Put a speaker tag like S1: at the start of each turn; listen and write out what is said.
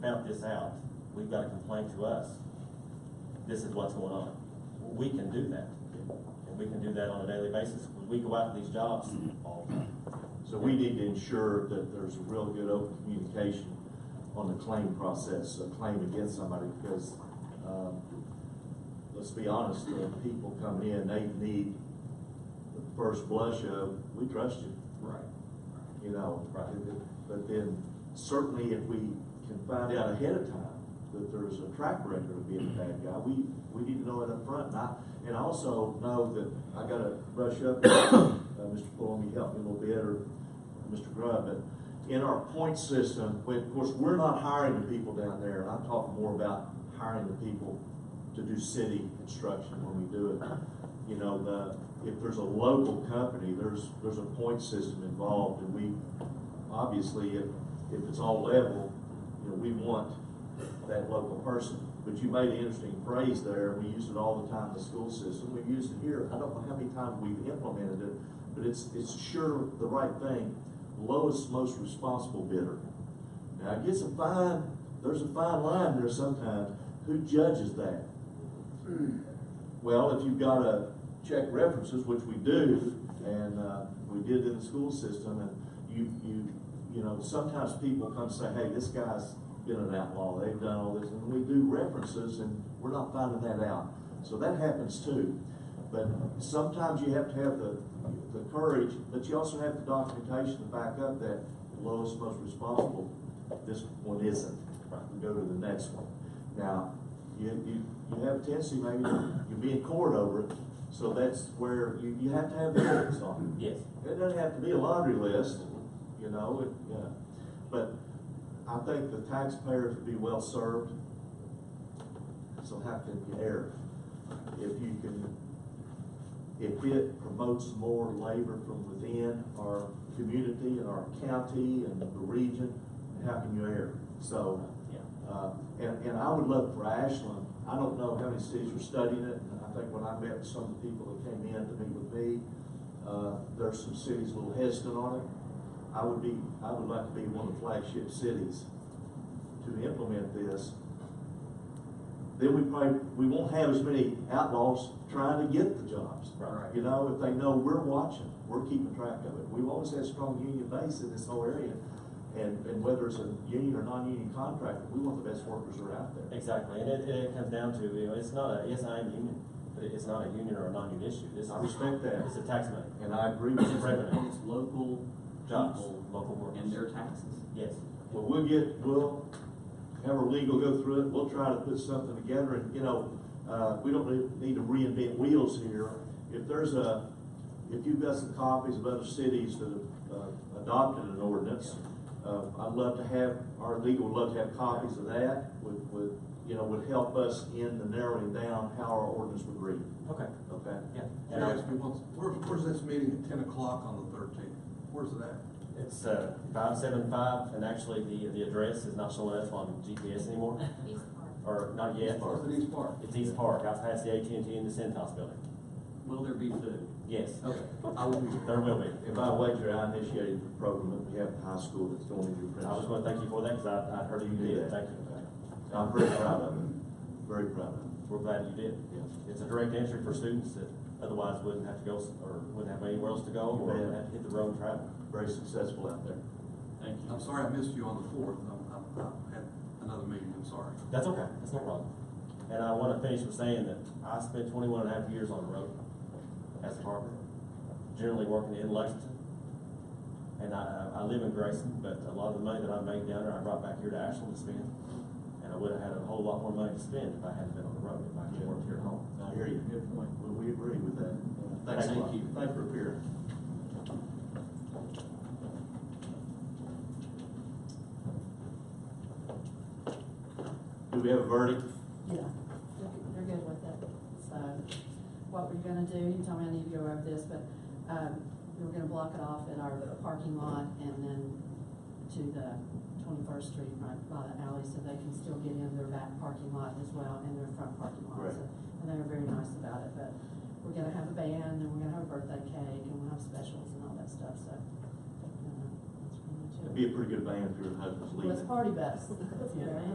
S1: found this out, we've got to complain to us. This is what's going on. We can do that. And we can do that on a daily basis. We go out to these jobs all the time.
S2: So we need to ensure that there's a real good open communication on the claim process, a claim against somebody, because, um, let's be honest, the people coming in, they need the first blush of, we trust you,
S1: Right.
S2: you know?
S1: Right.
S2: But then certainly if we can find out ahead of time that there's a track record of being a bad guy, we, we need to know it up front. And I, and I also know that I gotta brush up, uh, Mr. Pullum, you helped me a little bit, or Mr. Grubb, but in our point system, we, of course, we're not hiring the people down there, and I'm talking more about hiring the people to do city construction when we do it you know, the, if there's a local company, there's, there's a point system involved, and we, obviously, if, if it's all level, you know, we want that local person. But you made an interesting phrase there, we use it all the time in the school system, we've used it here, I don't know how many times we've implemented it, but it's, it's sure the right thing, lowest, most responsible bidder. Now, it gets a fine, there's a fine line there sometimes, who judges that? Well, if you've got to check references, which we do, and, uh, we did in the school system, and you, you, you know, sometimes people come say, hey, this guy's been an outlaw, they've done all this, and we do references, and we're not finding that out. So that happens too. But sometimes you have to have the, the courage, but you also have the documentation to back up that lowest, most responsible, this one isn't. We Go to the next one. Now, you, you, you have a tendency maybe, to- you'll be in court over it, so that's where you, you have to have the evidence on it.
S1: Yes.
S2: It doesn't have to be a laundry list, you know, it, yeah, but I think the taxpayers would be well served. So how can you err? If you can, if it promotes more labor from within our community and our county and the region, how can you err? So,
S1: Yeah.
S2: uh, and, and I would love for Ashland, I don't know how many cities are studying it, and I think when I met with some of the people that came in to meet with me, uh, there's some cities a little hesitant on it. I would be, I would like to be one of the flagship cities to implement this. Then we probably, we won't have as many outlaws trying to get the jobs.
S1: Right.
S2: You know, if they know we're watching, we're keeping track of it. We've always had strong union base in this whole area. And, and whether it's a union or non-union contractor, we want the best workers that are out there.
S1: Exactly, and it, and it comes down to, you know, it's not a, yes, I am union, but it- it's not a union or a non-union issue, this is.
S2: I respect that.
S1: It's a tax money,
S2: And I agree with you.
S1: Revenue.
S3: It's local
S1: jobs,
S3: people
S1: local workers.
S3: and their taxes.
S1: Yes,
S2: Well, we'll get, we'll have our legal go through it, we'll try to put something together, and, you know, uh, we don't really need to reinvent wheels here. If there's a, if you've got some copies of other cities that have uh, adopted an ordinance, uh, I'd love to have, our legal would love to have copies of that, would, would, you know, would help us in the narrowing down how our ordinance would read,
S1: okay,
S2: okay?
S1: yeah. And
S4: Yes,
S1: I-
S4: we want, where, where's this meeting at ten o'clock on the thirteenth? Where's it at?
S1: It's, uh, five seven five, and actually the, the address is not showing up on GPS anymore,
S5: East Park.
S1: or not yet.
S4: It's at East Park.
S1: It's East Park, out past the AT&T and the Centos building,
S3: Will there be food?
S1: yes,
S3: Okay, I will be there.
S1: there will be.
S2: And by wager, I initiated the program that we have in high school that's going into
S1: I just
S2: principal.
S1: wanna thank you for that, cause I, I heard you did, thank you.
S2: I'm very proud of it, very proud of it.
S1: We're glad you did.
S2: Yes.
S1: It's a direct entry for students that otherwise wouldn't have to go, s- or wouldn't have anywhere else to go, or
S2: You bet.
S1: would have to hit the road and travel.
S2: very successful out there.
S3: Thank you.
S4: I'm sorry I missed you on the fourth, I'm, I'm, I had another meeting, I'm sorry.
S1: That's okay, that's no problem. And I wanna finish with saying that I spent 21 and a half years on the road as a carpenter, generally working in Lexington. And I, I I live in Grayson, but a lot of the money that I made down there, I brought back here to Ashland to spend. And I would've had a whole lot more money to spend if I hadn't been on the road, if I had worked here at home.
S2: I hear you. Good point. Well, we agree with that. Thanks a
S1: Thank
S2: lot.
S1: you.
S2: Thank you for appearing. Do we have a verdict?
S6: Yeah, they're, they're good with it. So what we're gonna do, you tell me I need to go over this, but, um, we were gonna block it off in our parking lot and then to the twenty-first street right by the alley so they can still get in their back parking lot as well and their front parking lot.
S2: Right.
S6: So- And they were very nice about it, but we're gonna have a band and we're gonna have a birthday cake and we'll have specials and all that stuff, so. uh, That's pretty much
S2: It'd be a pretty good band if your husband's leaving.
S6: Let's party bus. Yeah.